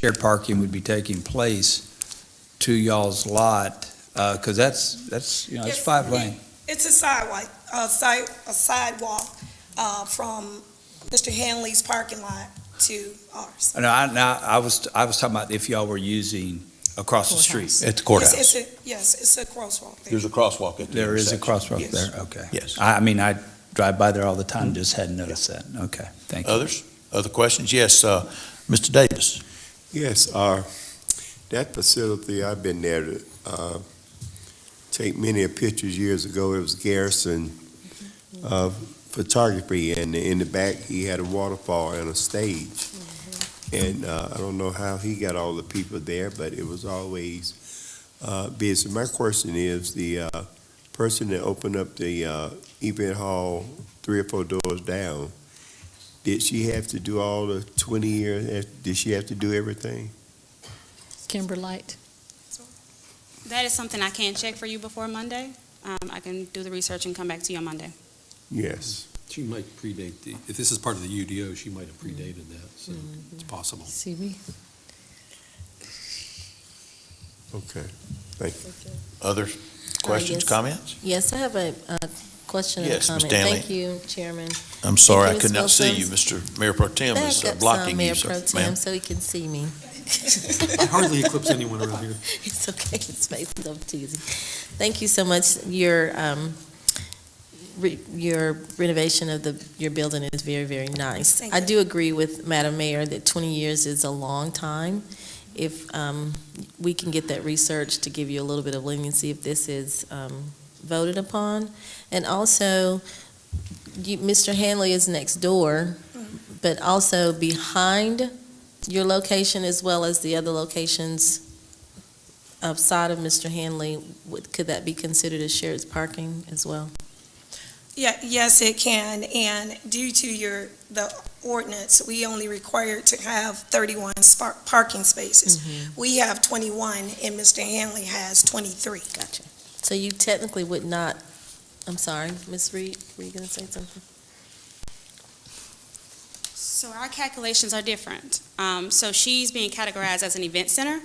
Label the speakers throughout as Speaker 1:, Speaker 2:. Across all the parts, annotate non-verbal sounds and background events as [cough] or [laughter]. Speaker 1: shared parking would be taking place to y'all's lot, uh, cause that's, that's, you know, it's
Speaker 2: Yes.
Speaker 1: five lane.
Speaker 2: It's a sidewalk, a side, a sidewalk, uh, from Mr. Hanley's parking lot to ours.
Speaker 1: And I, now, I was, I was talking about if y'all were using across the street.
Speaker 3: At the
Speaker 2: It's-
Speaker 3: courthouse.
Speaker 2: it's a- Yes, it's a crosswalk there.
Speaker 3: There's a crosswalk at the
Speaker 1: There is a
Speaker 3: intersection.
Speaker 1: crosswalk
Speaker 2: Yes.
Speaker 1: there, okay.
Speaker 3: Yes.
Speaker 1: I, I mean, I drive by there all the time, just hadn't noticed that, okay, thank you.
Speaker 3: Others? Other questions? Yes, uh, Mr. Davis.
Speaker 4: Yes, uh, that facility, I've been there to, uh, take many pictures years ago. It was Garrison, uh, photography and in the back, he had a waterfall and a stage. And, uh, I don't know how he got all the people there, but it was always, uh, busy. My question is the, uh, person that opened up the, uh, event hall three or four doors down, did she have to do all the twenty years? Did she have to do everything?
Speaker 5: Kimberlite.
Speaker 6: That is something I can't check for you before Monday. Um, I can do the research and come back to you on Monday.
Speaker 4: Yes.
Speaker 7: She might predate the, if this is part of the UDO, she might have predated that, so it's possible.
Speaker 5: See, we
Speaker 4: Okay.
Speaker 3: Other questions,
Speaker 8: yes.
Speaker 3: comments?
Speaker 8: Yes, I have a uh, question and a
Speaker 3: Yes, Ms.
Speaker 8: comment.
Speaker 3: Stanley.
Speaker 8: Thank you, Chairman.
Speaker 3: I'm sorry, I
Speaker 8: Ms.
Speaker 3: could not see you.
Speaker 8: Wilson.
Speaker 3: Mr. Mayor Pro Tem
Speaker 8: Back
Speaker 3: is uh,
Speaker 8: up some,
Speaker 3: blocking you,
Speaker 8: Mayor
Speaker 3: so-
Speaker 8: Pro
Speaker 3: ma'am.
Speaker 8: Tem, so he can see me.
Speaker 7: I hardly eclipse
Speaker 8: [laughs]
Speaker 7: anyone around here.
Speaker 8: It's okay, it's based up to you. Thank you so much. Your, um, re- your renovation of the, your building is very, very nice.
Speaker 2: Thank
Speaker 8: I
Speaker 2: you.
Speaker 8: do agree with Madam Mayor that 20 years is a long time. If um, we can get that research to give you a little bit of leniency if this is um, voted upon. And also, you- Mr. Hanley is next door,
Speaker 2: Mm-hmm.
Speaker 8: but also behind your location as well as the other locations outside of Mr. Hanley, would, could that be considered as shared parking as well?
Speaker 2: Yeah, yes, it can, and due to your, the ordinance, we only require to have thirty-one spark, parking spaces. We have twenty-one, and Mr. Hanley has twenty-three.
Speaker 8: Gotcha. So you technically would not, I'm sorry, Ms. Reed, were you gonna say something?
Speaker 6: So our calculations are different. Um, so she's being categorized as an event center.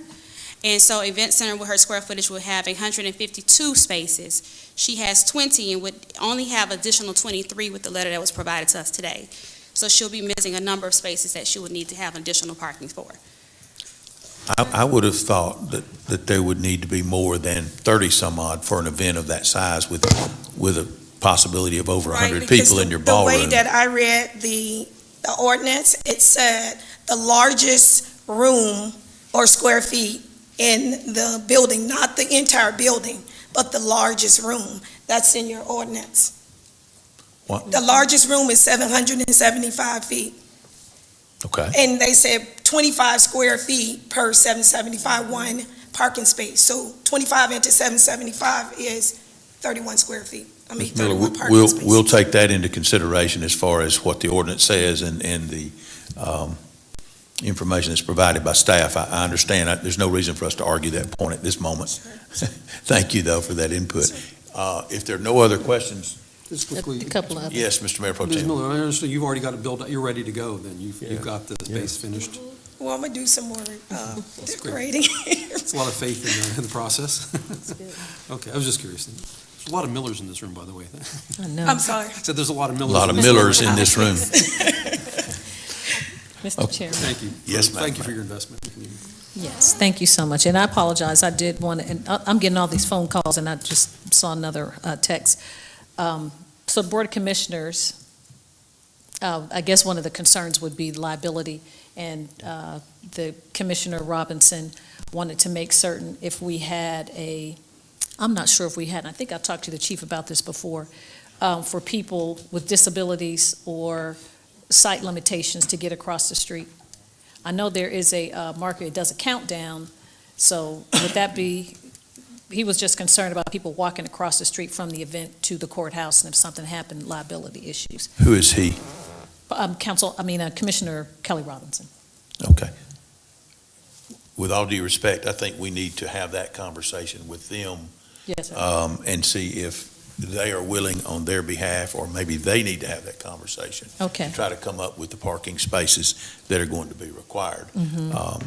Speaker 6: And so event center with her square footage would have hundred and fifty-two spaces. She has twenty and would only have additional twenty-three with the letter that was provided to us today. So she'll be missing a number of spaces that she would need to have additional parking for.
Speaker 3: I, I would have thought that, that there would need to be more than thirty-some odd for an event of that size with, with a possibility of over a
Speaker 2: Right,
Speaker 3: hundred
Speaker 2: because
Speaker 3: people
Speaker 2: the-
Speaker 3: in your
Speaker 2: The way
Speaker 3: ballroom.
Speaker 2: that I read the, the ordinance, it said the largest room or square feet in the building, not the entire building, but the largest room. That's in your ordinance.
Speaker 3: What?
Speaker 2: The largest room is seven hundred and seventy-five feet,
Speaker 3: Okay,
Speaker 2: and they said twenty-five square feet per seven seventy-five, one parking space. So twenty-five into seven seventy-five is thirty-one square feet. I mean,
Speaker 3: Ms. Miller,
Speaker 2: thirty-one
Speaker 3: we-
Speaker 2: parking
Speaker 3: we'll,
Speaker 2: spaces.
Speaker 3: we'll take that into consideration as far as what the ordinance says and, and the, um, information that's provided by staff. I, I understand. I- There's no reason for us to argue that point at this moment. [laughs] Thank you, though, for that input. Uh, if there are no other questions,
Speaker 7: Just
Speaker 5: a
Speaker 7: quickly,
Speaker 5: a couple of
Speaker 3: yes, Mr. Mayor Pro
Speaker 7: Ms.
Speaker 3: Tem.
Speaker 7: Miller, I understand you've already got it built, out. you're ready to go then. You've,
Speaker 4: Yeah.
Speaker 7: you've got the space finished.
Speaker 2: Well, I'm gonna do some more uh,
Speaker 7: great.
Speaker 2: decorating. [laughs]
Speaker 7: It's a lot of faith in the, in the process. [laughs] Okay, I was just curious. There's a lot of Millers in this room, by the way. [laughs]
Speaker 8: I
Speaker 2: I'm
Speaker 8: know.
Speaker 2: sorry.
Speaker 7: I said there's a lot of
Speaker 3: A
Speaker 7: Millers.
Speaker 3: lot of
Speaker 7: in this room.
Speaker 3: Millers in this
Speaker 7: [laughs]
Speaker 3: room.
Speaker 5: Mr. Chairman,
Speaker 7: Thank you.
Speaker 3: Yes, ma'am.
Speaker 7: Thank you for your investment in the community.
Speaker 5: yes, thank you so much. And I apologize, I did want, to. and I- I'm getting all these phone calls, and I just saw another uh, text. Um, So Board of Commissioners, uh, I guess one of the concerns would be liability, and uh, the Commissioner Robinson wanted to make certain if we had a, I'm not sure if we had, and I think I talked to the chief about this before, um, for people with disabilities or sight limitations to get across the street. I know there is a uh, marker, it does a countdown, so would that be, he was just concerned about people walking across the street from the event to the courthouse, and if something happened, liability issues.
Speaker 3: Who is he?
Speaker 5: But, um, Council, I mean, uh, Commissioner Kelly Robinson.
Speaker 3: Okay. With all due respect, I think we need to have that conversation with them
Speaker 5: Yes, sir.
Speaker 3: um, and see if they are willing on their behalf, or maybe they need to have that conversation.
Speaker 5: okay,
Speaker 3: Try to come up with the parking spaces that are going to be required. Um,